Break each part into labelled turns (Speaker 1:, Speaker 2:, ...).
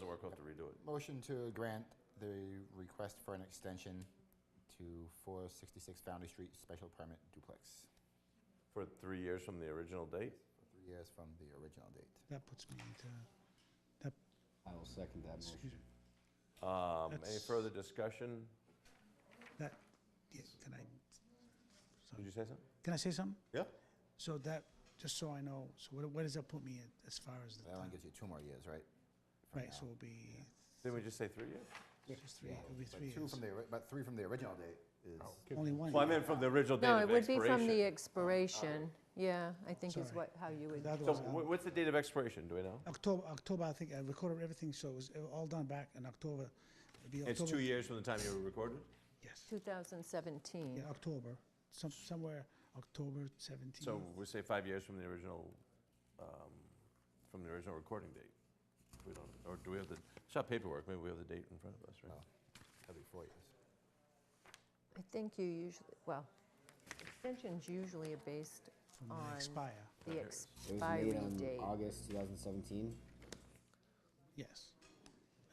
Speaker 1: we're going to redo it.
Speaker 2: Motion to grant the request for an extension to 466 Foundry Street Special Permit Duplex
Speaker 1: For three years from the original date?
Speaker 2: for three years from the original date.
Speaker 3: That puts me into, that,
Speaker 4: I will second that motion.
Speaker 1: Um, Any
Speaker 3: That's-
Speaker 1: further discussion?
Speaker 3: that, yeah, can I,
Speaker 1: Did you say something?
Speaker 3: can I say something?
Speaker 1: Yeah.
Speaker 3: So that, just so I know, so what, what does that put me in as far as the
Speaker 2: That only
Speaker 3: time?
Speaker 2: gives you two more years, right? from
Speaker 3: Right, so
Speaker 2: now.
Speaker 3: it'll be
Speaker 1: Didn't we just say three years?
Speaker 3: just three, it'll be
Speaker 2: But
Speaker 3: three
Speaker 2: two
Speaker 3: years. Oh,
Speaker 2: from the, ori- but three from the original date is,
Speaker 3: Only one.
Speaker 1: Well, I meant from the original date
Speaker 5: No, it
Speaker 1: of
Speaker 5: would be from the
Speaker 1: expiration. Oh,
Speaker 5: expiration, yeah, I think is
Speaker 3: Sorry.
Speaker 5: what, how you would,
Speaker 1: So
Speaker 3: Otherwise,
Speaker 1: wh-
Speaker 3: I'll-
Speaker 1: what's the date of expiration, do we know?
Speaker 3: October, October, I think I recorded everything, so it was all done back in October. It'd be
Speaker 1: It's
Speaker 3: October-
Speaker 1: two years from the time you were recorded?
Speaker 3: Yes,
Speaker 5: 2017.
Speaker 3: yeah, October, some, somewhere October 17th.
Speaker 1: So we say five years from the original, um, from the original recording date? We don't, or do we have the, it's not paperwork, maybe we have the date in front of us, right?
Speaker 2: that'd be four years.
Speaker 5: I think you usually, well, extensions usually are based
Speaker 3: From the
Speaker 5: on
Speaker 3: expire.
Speaker 5: the
Speaker 4: It was made
Speaker 5: expiry
Speaker 4: on
Speaker 5: date.
Speaker 4: August 2017.
Speaker 3: Yes.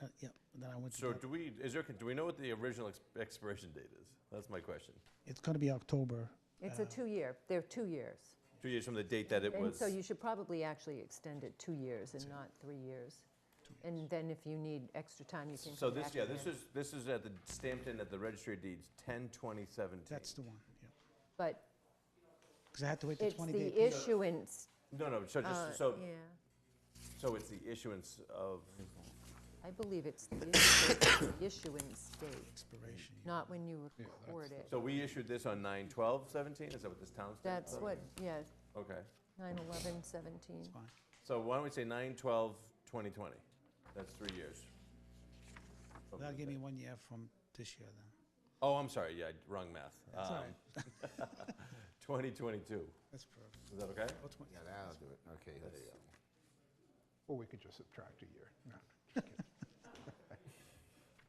Speaker 3: Uh, yeah, and then I went to.
Speaker 1: So
Speaker 3: that-
Speaker 1: do we, is there, do we know what the original ex- expiration date is? That's my question.
Speaker 3: It's gonna be October.
Speaker 5: It's a two-year, they're two years.
Speaker 1: Two years from the date that it
Speaker 5: And
Speaker 1: was,
Speaker 5: so you should probably actually extend it two years and not three years. And then if you need extra time, you can
Speaker 1: so
Speaker 5: come back
Speaker 1: this, yeah, this
Speaker 5: again.
Speaker 1: is, this is at the, stamped in at the registry of deeds, 10/2017.
Speaker 3: That's the one, yeah.
Speaker 5: But
Speaker 3: Because I had to wait the
Speaker 5: it's
Speaker 3: 20 day.
Speaker 5: the
Speaker 3: period.
Speaker 5: issuance,
Speaker 1: No, no, so
Speaker 5: uh,
Speaker 1: just, so,
Speaker 5: yeah,
Speaker 1: so it's the issuance of,
Speaker 5: I believe it's the issu- the issuance date,
Speaker 3: Expiration.
Speaker 5: not when you record it.
Speaker 1: so we issued this on 9/12/17, is that what this town stamp?
Speaker 5: That's what, yeah,
Speaker 1: Okay.
Speaker 5: 9/11/17.
Speaker 3: Fine.
Speaker 1: So why don't we say 9/12/2020? That's three years. from
Speaker 3: That'll
Speaker 1: the
Speaker 3: give me
Speaker 1: date.
Speaker 3: one year from this year then.
Speaker 1: Oh, I'm sorry, yeah, wrong math.
Speaker 3: That's all
Speaker 1: Um,
Speaker 3: right.
Speaker 1: 2022,
Speaker 3: That's perfect.
Speaker 1: is that okay?
Speaker 3: What's my-
Speaker 2: Yeah, that'll do it, okay. let's-
Speaker 6: Or we could just subtract a year. No,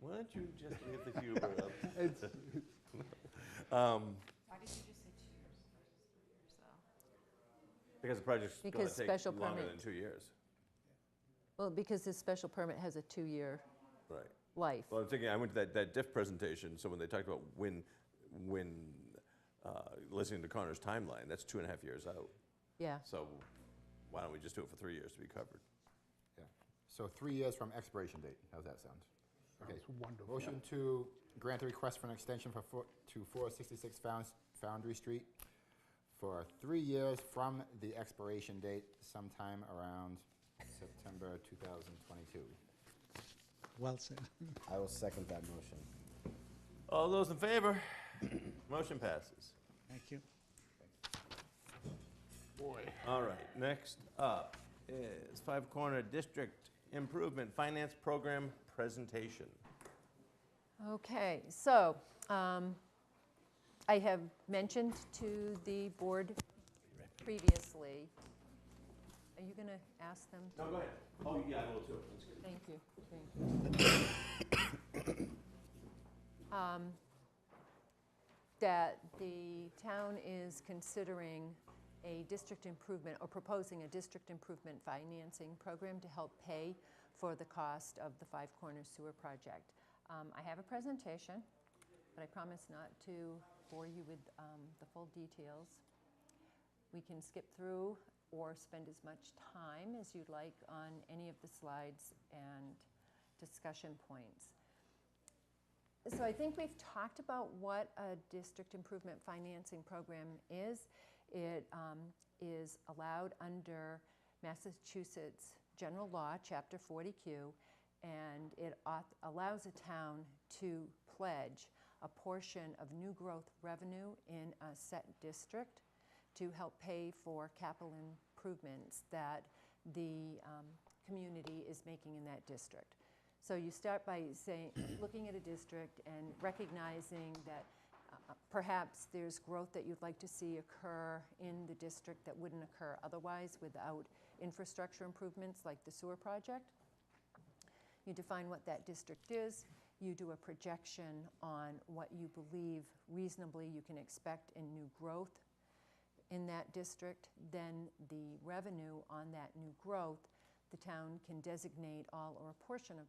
Speaker 1: Why don't you just leave the humor up?
Speaker 7: Why did you just say two years versus three years, though?
Speaker 1: Because the project's going
Speaker 5: Because
Speaker 1: to take
Speaker 5: special
Speaker 1: longer
Speaker 5: permit-
Speaker 1: than two years.
Speaker 5: Well, because this special permit has a two-year
Speaker 1: Right.
Speaker 5: life.
Speaker 1: Well, I'm thinking, I went to that, that diff presentation, so when they talked about when, when, uh, listening to Connor's timeline, that's two and a half years out.
Speaker 5: Yeah,
Speaker 1: So why don't we just do it for three years to be covered?
Speaker 2: Yeah. So three years from expiration date, how's that sound? Okay.
Speaker 6: Sounds wonderful.
Speaker 2: Motion to grant the request for an extension for, four- to 466 Found- Foundry Street for three years from the expiration date sometime around September 2022.
Speaker 3: Well said.
Speaker 4: I will second that motion.
Speaker 1: All those in favor? Motion passes.
Speaker 3: Thank you.
Speaker 6: Boy.
Speaker 1: All right, next up is Five Corner District Improvement Finance Program presentation.
Speaker 5: okay, so um, I have mentioned to the board previously, are you going to ask them?
Speaker 1: No, go ahead. Oh, yeah, I will too.
Speaker 5: Thank you, thank you. Um, That the town is considering a district improvement, or proposing a district improvement financing program to help pay for the cost of the Five Corners Sewer Project. Um, I have a presentation, but I promise not to bore you with um, the full details. We can skip through or spend as much time as you'd like on any of the slides and discussion points. So I think we've talked about what a district improvement financing program is. It um, is allowed under Massachusetts General Law, Chapter 40Q, and it auth- allows a town to pledge a portion of new growth revenue in a set district to help pay for capital improvements that the um, community is making in that district. So you start by saying, looking at a district and recognizing that uh, perhaps there's growth that you'd like to see occur in the district that wouldn't occur otherwise without infrastructure improvements like the sewer project. You define what that district is. You do a projection on what you believe reasonably you can expect in new growth in that district, then the revenue on that new growth, the town can designate all or a portion of